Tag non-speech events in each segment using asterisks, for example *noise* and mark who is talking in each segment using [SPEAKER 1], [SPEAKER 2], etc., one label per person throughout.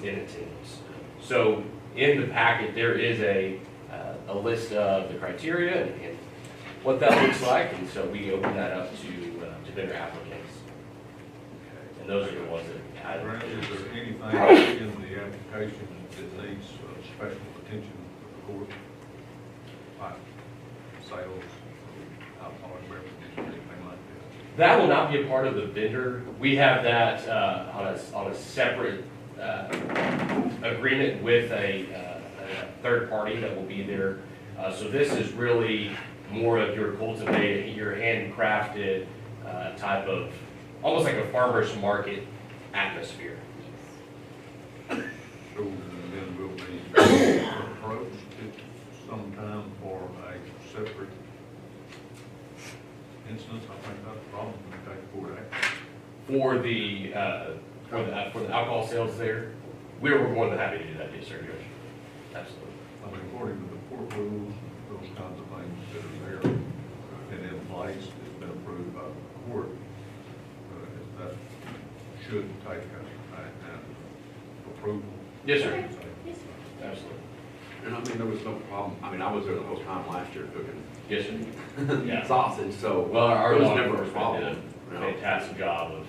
[SPEAKER 1] in attendance. So in the packet, there is a, uh, a list of the criteria and- and what that looks like, and so we open that up to, uh, to vendor applicants. And those are the ones that had.
[SPEAKER 2] Brent, is there anything in the application that needs uh, special attention of the court? Like sales, alcoholic beverages, anything like that?
[SPEAKER 1] That will not be a part of the vendor. We have that uh, on a, on a separate uh, agreement with a, uh, a third party that will be there. Uh, So this is really more of your cultivated, your handcrafted uh, type of, almost like a farmer's market atmosphere.
[SPEAKER 2] So then we'll be approached at some time for a separate instance, I think that's the problem, we take court action.
[SPEAKER 1] For the, uh, for the, for the alcohol sales there, we're more than happy to do that, yes, sir, Judge. Absolutely.
[SPEAKER 2] I mean, according to the court rules, those kinds of things that are there and in place, it's been approved by the court. uh, That should take a, a- a approval.
[SPEAKER 1] Yes, sir.
[SPEAKER 3] Yes,
[SPEAKER 1] Absolutely.
[SPEAKER 4] And I mean, there was no problem, I mean, I was there the whole time last year cooking *laughs*
[SPEAKER 1] Yes, sir. Yeah.
[SPEAKER 4] sausage, so.
[SPEAKER 1] Well, our
[SPEAKER 4] It was
[SPEAKER 1] law
[SPEAKER 4] never a
[SPEAKER 1] enforcement
[SPEAKER 4] problem,
[SPEAKER 1] did a
[SPEAKER 4] you know.
[SPEAKER 1] fantastic job of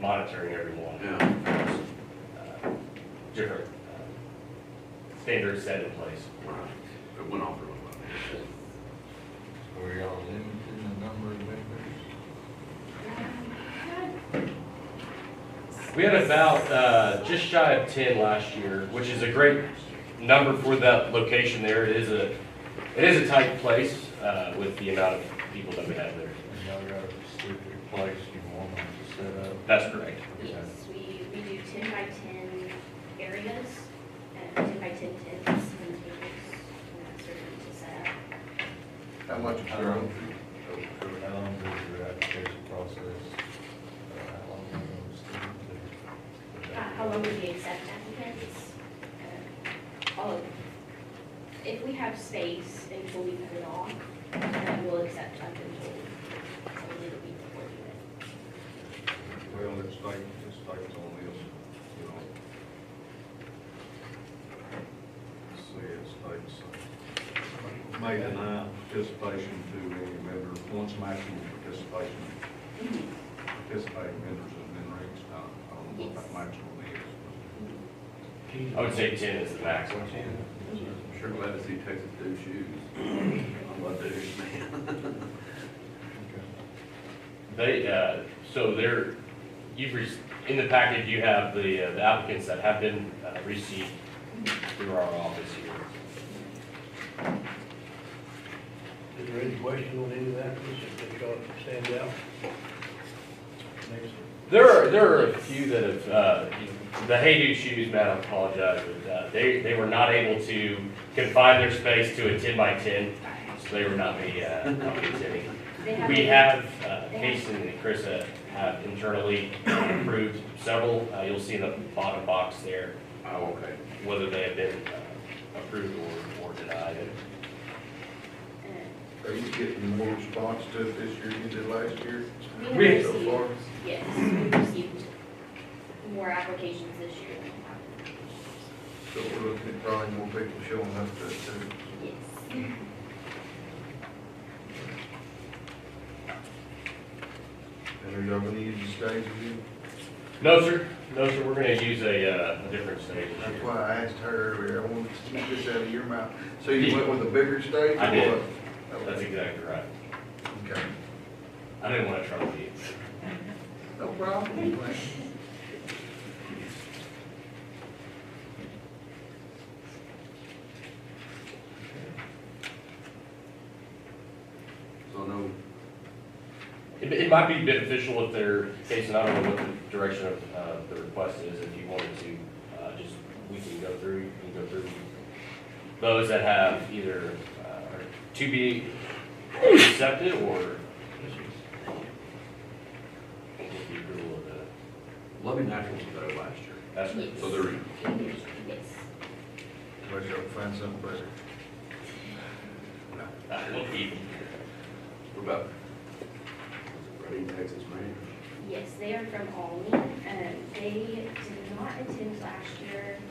[SPEAKER 1] monitoring everyone.
[SPEAKER 4] Yeah.
[SPEAKER 1] Uh, Different uh, standards set in place.
[SPEAKER 4] Right. It went off really well.
[SPEAKER 5] Are y'all limiting the number of members?
[SPEAKER 3] sir.
[SPEAKER 1] We had about uh, just shy of 10 last year, which is a great number for that location there. It is a, it is a tight place uh, with the amount of people that we have there.
[SPEAKER 5] And y'all got a specific place you want them to set up?
[SPEAKER 1] That's correct.
[SPEAKER 3] Yes, we, we do ten by ten areas, and ten by ten tents and tables, and that's sort of to set up. Uh,
[SPEAKER 5] How much is your own? How long does your application process, uh, how long are you
[SPEAKER 3] Uh,
[SPEAKER 5] gonna
[SPEAKER 3] How long would we accept applicants? Uh, All of them. If we have space until we put it on, then we'll accept up until, until the week before we do it.
[SPEAKER 2] Well, it's state, it's states on this, you know. Let's See, it states, uh, may deny participation to any member, once maximum participation, participating members has been reached, I I don't know what that maximum is.
[SPEAKER 1] I would say 10 is the maximum.
[SPEAKER 3] Mm-hmm.
[SPEAKER 4] I'm Sure glad to see Texas do shoes. I love those, man. *laughs*
[SPEAKER 1] They, uh, so they're, you've, rec- in the package, you have the uh, the applicants that have been uh, received through our office here.
[SPEAKER 6] Is there any question on any of that, just that y'all stand out?
[SPEAKER 1] There are, there are a few that have, uh, the Hey Dude Shoes, man, I apologize, but uh, they, they were not able to confine their space to a ten by ten, so they were not be, uh, not be attending.
[SPEAKER 3] They have
[SPEAKER 1] We
[SPEAKER 3] a-
[SPEAKER 1] have, uh, Casey and Krista have internally approved several, uh, you'll see in the bottom box there.
[SPEAKER 4] Oh, okay.
[SPEAKER 1] whether they have been uh, approved or, or denied.
[SPEAKER 3] uh,
[SPEAKER 2] Are you getting more response to it this year than you did last year?
[SPEAKER 3] We have
[SPEAKER 2] So
[SPEAKER 3] received,
[SPEAKER 2] far?
[SPEAKER 3] yes, we received more applications this year than we have.
[SPEAKER 2] So we're looking at probably more people showing up to, to
[SPEAKER 3] Yes.
[SPEAKER 2] And are y'all gonna use the stage again?
[SPEAKER 1] No, sir, no, sir, we're gonna use a, uh, a different stage.
[SPEAKER 2] That's why I asked her earlier, I wanted to get this out of your mouth. So you went with a bigger stage or
[SPEAKER 1] I did.
[SPEAKER 2] what?
[SPEAKER 1] That's exactly right.
[SPEAKER 2] Okay,
[SPEAKER 1] I didn't wanna trouble you.
[SPEAKER 2] no problem.
[SPEAKER 4] So no,
[SPEAKER 1] It, it might be beneficial if they're, Jason, I don't know what the direction of, uh, the request is, if you wanted to, uh, just, we can go through, you can go through those that have either, uh, are to be accepted or. With the approval of the-
[SPEAKER 4] Loving Naturals was better last year.
[SPEAKER 1] That's right.
[SPEAKER 4] So they're in.
[SPEAKER 3] Yes.
[SPEAKER 2] Unless y'all find something better.
[SPEAKER 1] I will keep them.
[SPEAKER 4] What about? Reading, Texas, man?
[SPEAKER 3] Yes, they are from Almy. Um, They did not attend last year.